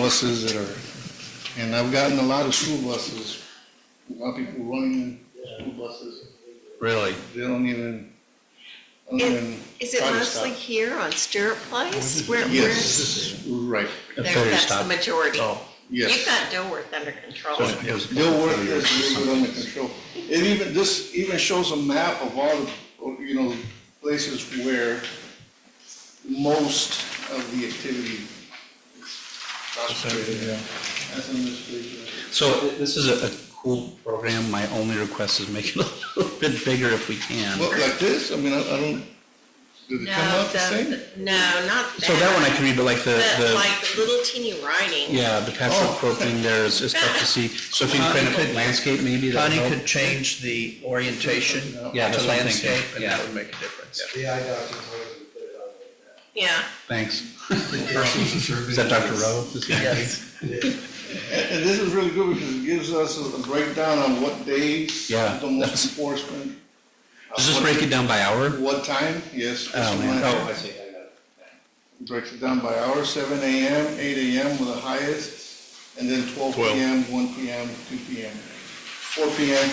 buses that are, and I've gotten a lot of school buses, a lot of people running school buses. Really? They don't even, don't Is- even Is it try to mostly stop. here on Stewart Place? Where, where's, Yes, right, there, that's the majority. Oh, You've yes. got Dilworth under control. so it was- They'll work this a little bit under control. It even, this even shows a map of all the, you know, places where most of the activity is concentrated. That's on this page. right here. So th- this is a a cool program. My only request is make it a little bit bigger if we can. Well, like this, I mean, I I don't, did it come No, out the same? the, no, not that. So that one I can read, but like the, But the, like the little teeny writing. yeah, the patchwork Oh. quilting there is is tough to see. So if you can print a landscape maybe, that'd Connie help. could change the orientation Yeah, that's to what I'm thinking. landscape, and that Yeah. would make a difference. The eye doctor told us to put it on like Yeah. Thanks. that. Is that Dr. Rowe? Is he- And and this is really good because it gives us a breakdown on what days. Yeah, The most enforcement. uh, Does this what- break it down by hour? What time, yes. Oh, this man. one. Oh, I see, I got it. Breaks it down by hour, seven AM, eight AM with the highest, and then twelve PM, one PM, two PM. Four PM,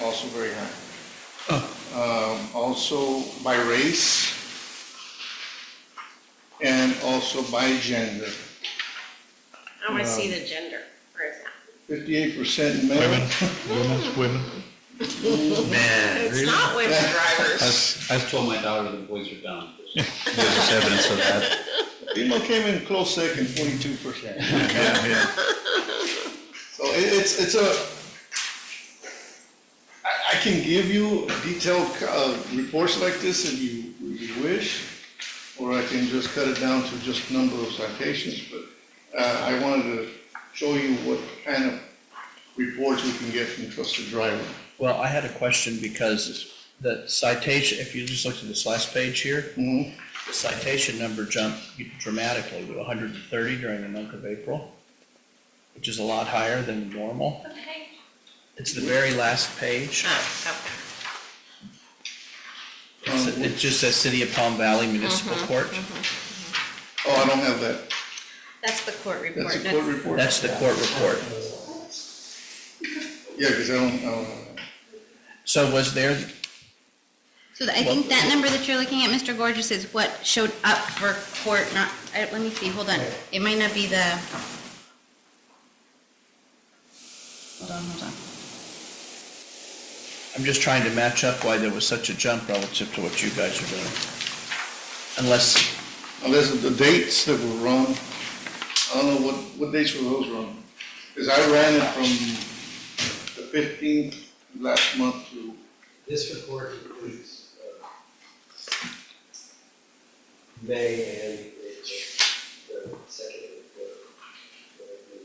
also very high. Um, also by race, and also by gender. I want to see the gender. Where is that? Fifty-eight percent male, Oh, It's not women I drivers. was- I was told my daughter the boys are down. There's evidence of that. female came in close second, forty-two percent. So it, it's, it's a, I, I can give you detailed, uh, reports like this if you, if you wish, or I can just cut it down to just number of citations, but, uh, I wanted to show you what kind of reports we can get from trusted driver. Well, I had a question because the citation, if you just looked at this last page here, Mm-hmm. Mhm. the citation number jumped dramatically to hundred and thirty during the month of April, which is a lot higher than normal. Okay. It's the very last page. Oh, okay. It's- Um, It just says City of Palm Valley Municipal Court. Oh, I don't have that. That's the court report. That's a court report. That's the court report. Yeah, because I don't, I don't have that. So was there, So I think that number that you're looking at, Mr. Gorgeous, is what showed up for court, not, I- let me see, hold on. It might not be the. Hold on, hold on. I'm just trying to match up why there was such a jump relative to what you guys are doing. Unless, Unless Oh, the dates that were wrong, I don't know what, what dates were those wrong? Because I ran it from the fifteenth last month to, This report includes, uh, May and the, the second uh, report.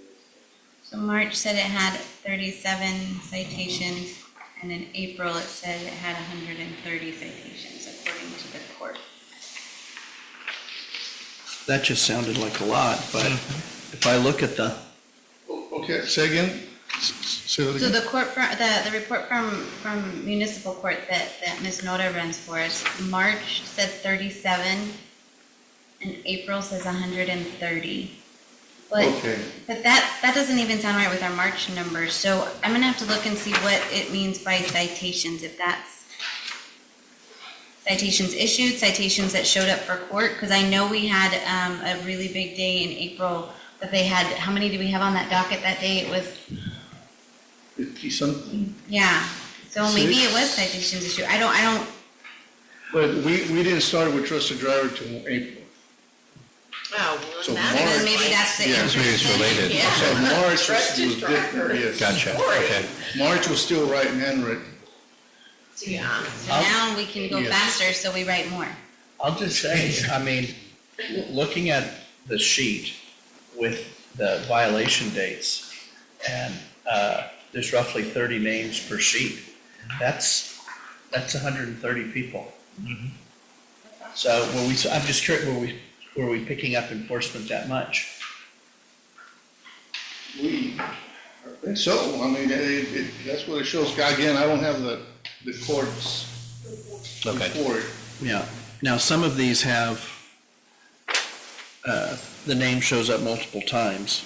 So March said it had 37 citations, and in April it said it had 130 citations, according to the court. that just sounded like a lot, but if I look at the, Oh, okay, say again? S- s- Say that So again? the court, fr- the, the report from, from municipal court that, that Ms. Noda runs for us, March said thirty-seven, and April says hundred and thirty. But, Okay. but that, that doesn't even sound right with our March numbers, so I'm gonna have to look and see what it means by citations, if that's citations issued, citations that showed up for court, because I know we had, um, a really big day in April, that they had, how many did we have on that docket that day? It was Fifty something? yeah, so maybe it was Six. citations issue, I don't, I don't, But we, we didn't start with trusted driver till April. Oh, So well, Mark- that then is. maybe like- that's the. Yeah, maybe it's interesting- related. Yeah, So March was Trusted was different, driver. yes. Gotcha, okay. March was still right and handwritten. Yeah. so now we can go Yes. faster, so we write more. I'll just say, I mean, looking at the sheet with the violation dates, and, uh, there's roughly thirty names per sheet, that's, that's hundred and thirty people. Mm-hmm. So were we, so I'm just curious, were we, were we picking up enforcement that much? We, I think so, I mean, it, it, that's what it shows. Again, I don't have the, the courts Okay. report. Yeah, now, some of these have uh, the name shows up multiple times.